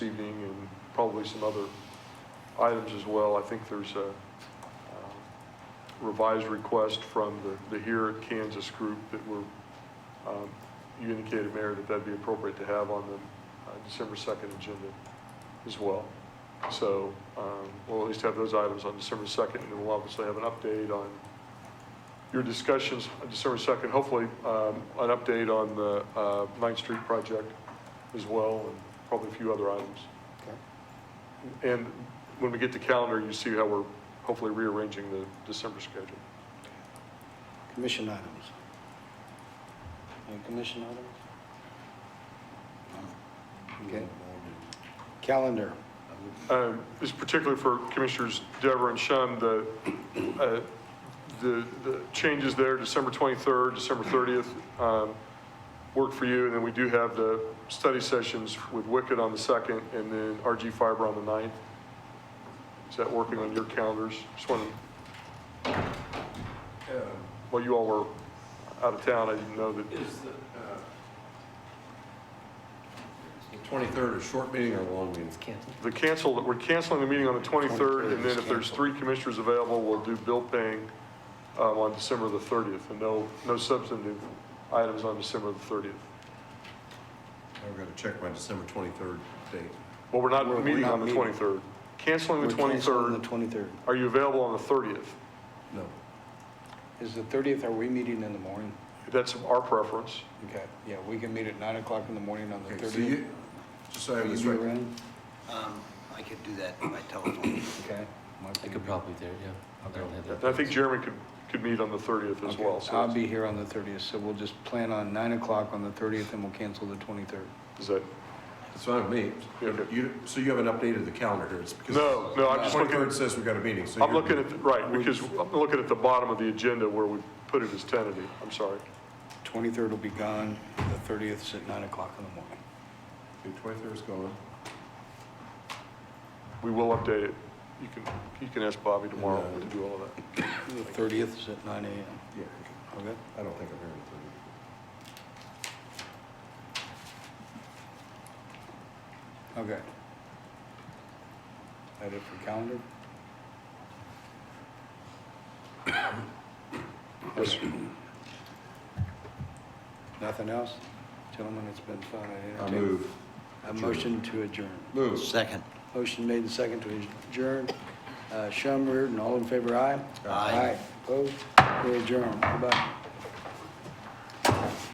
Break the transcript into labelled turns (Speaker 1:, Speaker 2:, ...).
Speaker 1: probably some other items as well. I think there's a um, revised request from the, the Here at Kansas group that we're, um, you indicated, Mayor, that that'd be appropriate to have on the uh, December 2nd agenda as well. So um, we'll at least have those items on December 2nd, and then we'll obviously have an update on your discussions on December 2nd, hopefully um, an update on the uh, Ninth Street project as well, and probably a few other items.
Speaker 2: Okay.
Speaker 1: And when we get to calendar, you see how we're hopefully rearranging the December schedule.
Speaker 2: Commission items. Any commission items? Okay. Calendar.
Speaker 1: Um, This is particularly for Commissioners Dever and Shum, the, uh, the the changes there, December 23rd, December 30th, um, work for you, and then we do have the study sessions with Wicked on the 2nd, and then RG Fiber on the 9th. Is that working on your calendars? Just wanted,
Speaker 3: Uh,
Speaker 1: while you all were out of town, I didn't know that,
Speaker 3: Is the, uh, is the 23rd a short meeting or a long meeting?
Speaker 1: the cancel, we're canceling the meeting on the 23rd, and then if there's three commissioners available, we'll do bill paying um, on December the 30th, and no, no substantive items on December the 30th.
Speaker 3: I've got to check my December 23rd date.
Speaker 1: Well, we're
Speaker 2: We're- we're
Speaker 1: not meeting
Speaker 2: not
Speaker 1: on the
Speaker 2: meeting.
Speaker 1: 23rd. Canceling the
Speaker 2: We're
Speaker 1: 23rd,
Speaker 2: canceling The 23rd.
Speaker 1: are you available on the 30th?
Speaker 3: No.
Speaker 2: Is the 30th, are we meeting in the morning?
Speaker 1: That's our preference.
Speaker 2: Okay, yeah, we can meet at 9 o'clock in the morning on the
Speaker 3: Okay, so
Speaker 2: 30th.
Speaker 3: you, just so I
Speaker 2: Are
Speaker 3: have
Speaker 2: you
Speaker 3: this
Speaker 2: be
Speaker 3: right.
Speaker 2: around?
Speaker 4: Um, I could do that by telephone.
Speaker 2: Okay. Mark,
Speaker 5: I
Speaker 2: you
Speaker 5: could
Speaker 2: be-
Speaker 5: probably do, it, yeah. I don't have that.
Speaker 1: And I think Jeremy could, could meet on the 30th as
Speaker 2: Okay,
Speaker 1: well, so
Speaker 2: I'll
Speaker 1: that's-
Speaker 2: be here on the 30th, so we'll just plan on 9 o'clock on the 30th and we'll cancel the 23rd.
Speaker 1: is that,
Speaker 3: It's fine with me.
Speaker 1: Okay.
Speaker 3: You, so you haven't updated the calendar here? It's because
Speaker 1: no, no, I'm just looking,
Speaker 3: 23rd says we got a meeting, so.
Speaker 1: I'm
Speaker 3: you're-
Speaker 1: looking at, right, because I'm looking at the bottom of the agenda where we put it as tentative, I'm sorry.
Speaker 2: 23rd will be gone, the 30th is at 9 o'clock in the morning.
Speaker 3: The 23rd is gone.
Speaker 1: We will update it. You can, you can ask Bobby tomorrow
Speaker 3: Yeah.
Speaker 1: to do all of that.
Speaker 2: The 30th is at 9 AM.
Speaker 3: Yeah.
Speaker 2: Okay?
Speaker 3: I don't think I'm hearing the
Speaker 2: Okay. That it for calendar?
Speaker 1: Yes, sir.
Speaker 2: Nothing else? Gentlemen, it's been fun. I
Speaker 3: 23rd. I
Speaker 2: entertain-
Speaker 3: move.
Speaker 2: A motion to adjourn.
Speaker 3: Move.
Speaker 4: Second.
Speaker 2: Motion made and second to adjourn. Uh, Shum, Reardon, all in favor, aye?
Speaker 4: Aye.
Speaker 2: Opposed? We adjourn. Goodbye.